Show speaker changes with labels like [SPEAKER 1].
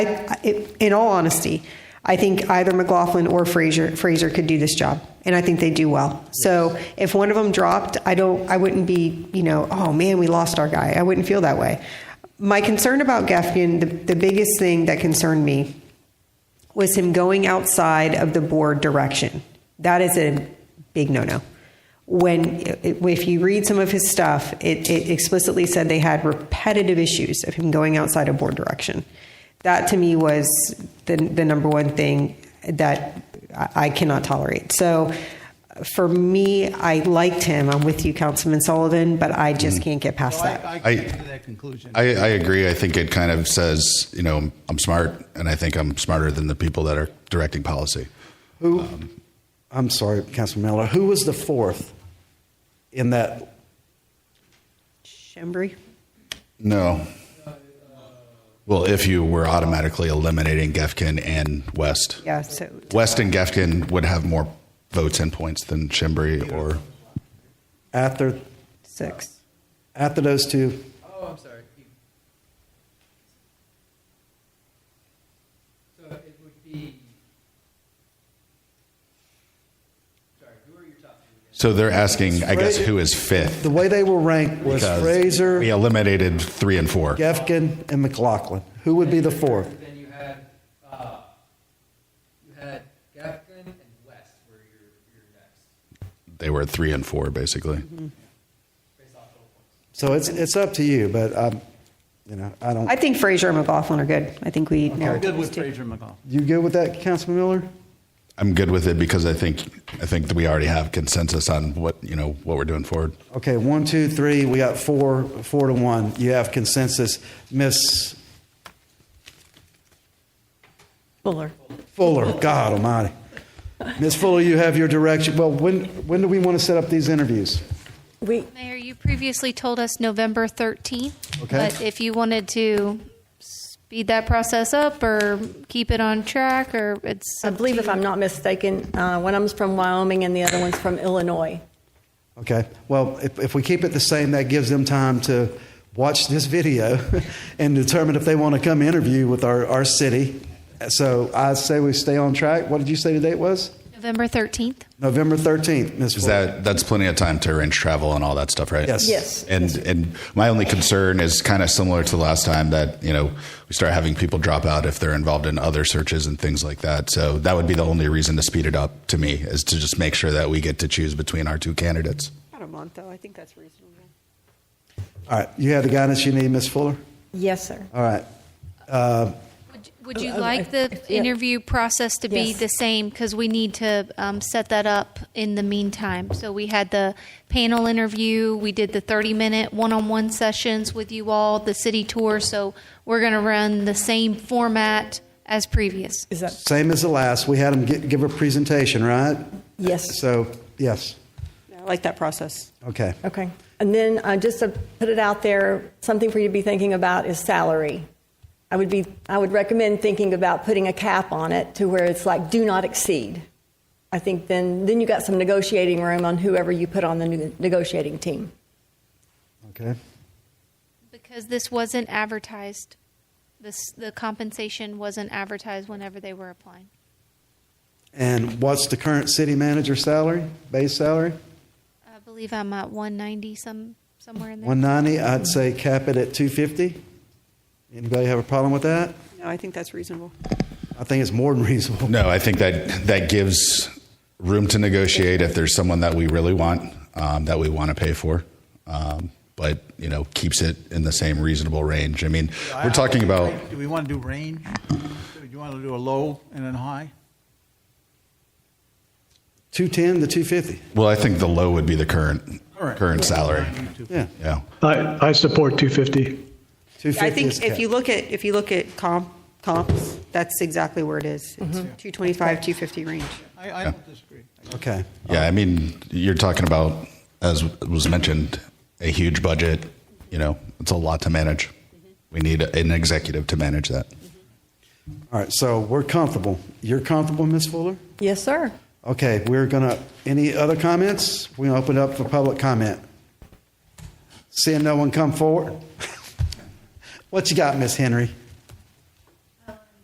[SPEAKER 1] I- I- In all honesty, I think either McLaughlin or Fraser Fraser could do this job, and I think they do well. So if one of them dropped, I don't, I wouldn't be, you know, oh man, we lost our guy. I wouldn't feel that way. My concern about Gefkin, the, the biggest thing that concerned me was him going outside of the board direction. That is a big no-no. When if you read some of his stuff, it, it explicitly said they had repetitive issues of him going outside of board direction. That to me was the, the number one thing that I I cannot tolerate. So for me, I liked him. I'm with you, Councilman Sullivan, but I just can't get past that.
[SPEAKER 2] I, I came to that conclusion.
[SPEAKER 3] I, I agree. I think it kind of says, you know, I'm smart, and I think I'm smarter than the people that are directing policy.
[SPEAKER 4] I'm sorry, Councilman Miller. Who was the fourth in that?
[SPEAKER 1] Shembri?
[SPEAKER 3] No. Well, if you were automatically eliminating Gefkin and West,
[SPEAKER 1] Yeah. So
[SPEAKER 3] West and Gefkin would have more votes and points than Chimbri or
[SPEAKER 4] After,
[SPEAKER 1] six.
[SPEAKER 4] after those two,
[SPEAKER 2] Oh, I'm sorry. So it would be. Sorry, who are your top two?
[SPEAKER 3] So they're asking, I guess, who is fifth?
[SPEAKER 4] the way they were ranked was
[SPEAKER 3] Because
[SPEAKER 4] Fraser,
[SPEAKER 3] We eliminated three and four.
[SPEAKER 4] Gefkin, and McLaughlin. Who would be the fourth?
[SPEAKER 2] Then you had, uh, you had Gafkin and West were your, your next,
[SPEAKER 3] They were three and four, basically.
[SPEAKER 2] based off total points.
[SPEAKER 4] So it's it's up to you, but um, you know I don't.
[SPEAKER 1] I think Fraser and McLaughlin are good. I think we narrowed
[SPEAKER 2] Good
[SPEAKER 1] those
[SPEAKER 2] with
[SPEAKER 1] two.
[SPEAKER 2] Fraser McCall.
[SPEAKER 4] you good with that, Councilman Miller?
[SPEAKER 3] I'm good with it because I think I think that we already have consensus on what you know what we're doing forward.
[SPEAKER 4] Okay, one, two, three. We got four, four to one. You have consensus, Miss
[SPEAKER 5] Fuller.
[SPEAKER 4] Fuller. God Almighty, Miss Fuller, you have your direction. Well, when when do we want to set up these interviews?
[SPEAKER 5] We,
[SPEAKER 6] Mayor, you previously told us November 13th.
[SPEAKER 4] Okay.
[SPEAKER 6] But if you wanted to speed that process up or keep it on track, or it's.
[SPEAKER 5] I
[SPEAKER 6] up to
[SPEAKER 5] believe if
[SPEAKER 6] you.
[SPEAKER 5] I'm not mistaken, uh, one of them's from Wyoming and the other one's from Illinois.
[SPEAKER 4] Okay. Well, if, if we keep it the same, that gives them time to watch this video and determine if they want to come interview with our, our city. So I say we stay on track. What did you say the date was?
[SPEAKER 6] November 13th.
[SPEAKER 4] November 13th, Ms.
[SPEAKER 3] Is that that's plenty of time to arrange travel and all that stuff, right?
[SPEAKER 4] Yes.
[SPEAKER 5] Yes.
[SPEAKER 3] And and my only concern is kind of similar to the last time that you know we start having people drop out if they're involved in other searches and things like that. So that would be the only reason to speed it up to me is to just make sure that we get to choose between our two candidates.
[SPEAKER 1] About a month, though. I think that's reasonable.
[SPEAKER 4] All right. You have the guidance you need, Ms. Fuller?
[SPEAKER 5] Yes, sir.
[SPEAKER 4] All right.
[SPEAKER 6] Would- Would
[SPEAKER 5] Oh,
[SPEAKER 6] you
[SPEAKER 5] oh,
[SPEAKER 6] like
[SPEAKER 5] I-
[SPEAKER 6] the
[SPEAKER 5] I- yeah.
[SPEAKER 6] interview process to be
[SPEAKER 5] Yes.
[SPEAKER 6] the same? Because we need to um, set that up in the meantime. So we had the panel interview, we did the 30-minute one-on-one sessions with you all, the city tour. So we're going to run the same format as previous.
[SPEAKER 5] Is that,
[SPEAKER 4] Same as the last. We had them gi- give a presentation, right?
[SPEAKER 5] yes,
[SPEAKER 4] So, yes.
[SPEAKER 1] I like that process.
[SPEAKER 4] Okay.
[SPEAKER 5] okay. And then uh, just to put it out there, something for you to be thinking about is salary. I would be, I would recommend thinking about putting a cap on it to where it's like, do not exceed. I think then, then you got some negotiating room on whoever you put on the ne- negotiating team.
[SPEAKER 4] Okay.
[SPEAKER 6] Because this wasn't advertised. This, the compensation wasn't advertised whenever they were applying.
[SPEAKER 4] And what's the current city manager salary, base salary?
[SPEAKER 6] I believe I'm at 190 some somewhere in there.
[SPEAKER 4] 190, I'd say cap it at 250. Anybody have a problem with that?
[SPEAKER 1] No, I think that's reasonable.
[SPEAKER 4] I think it's more than reasonable.
[SPEAKER 3] No, I think that that gives room to negotiate if there's someone that we really want um, that we want to pay for, um, but you know keeps it in the same reasonable range. I mean, we're talking about.
[SPEAKER 2] Do we want to do range? Do you want to do a low and then high?
[SPEAKER 4] 210 to 250.
[SPEAKER 3] Well, I think the low would be the current
[SPEAKER 2] Current.
[SPEAKER 3] current salary.
[SPEAKER 4] Yeah.
[SPEAKER 3] Yeah.
[SPEAKER 7] I, I support 250.
[SPEAKER 4] 250
[SPEAKER 1] I
[SPEAKER 4] is
[SPEAKER 1] think if
[SPEAKER 4] cap.
[SPEAKER 1] you look at, if you look at comp, comps, that's exactly where it is. It's
[SPEAKER 4] Mm-hmm.
[SPEAKER 1] 225, 250 range.
[SPEAKER 2] I, I don't disagree.
[SPEAKER 4] Okay.
[SPEAKER 3] Yeah, I mean, you're talking about as was mentioned, a huge budget, you know, it's a lot to manage. We need an executive to manage that.
[SPEAKER 4] All right. So we're comfortable. You're comfortable, Ms. Fuller?
[SPEAKER 5] Yes, sir.
[SPEAKER 4] Okay. We're going to, any other comments? We're going to open it up for public comment. Seeing no one come forward. what you got, Miss Henry?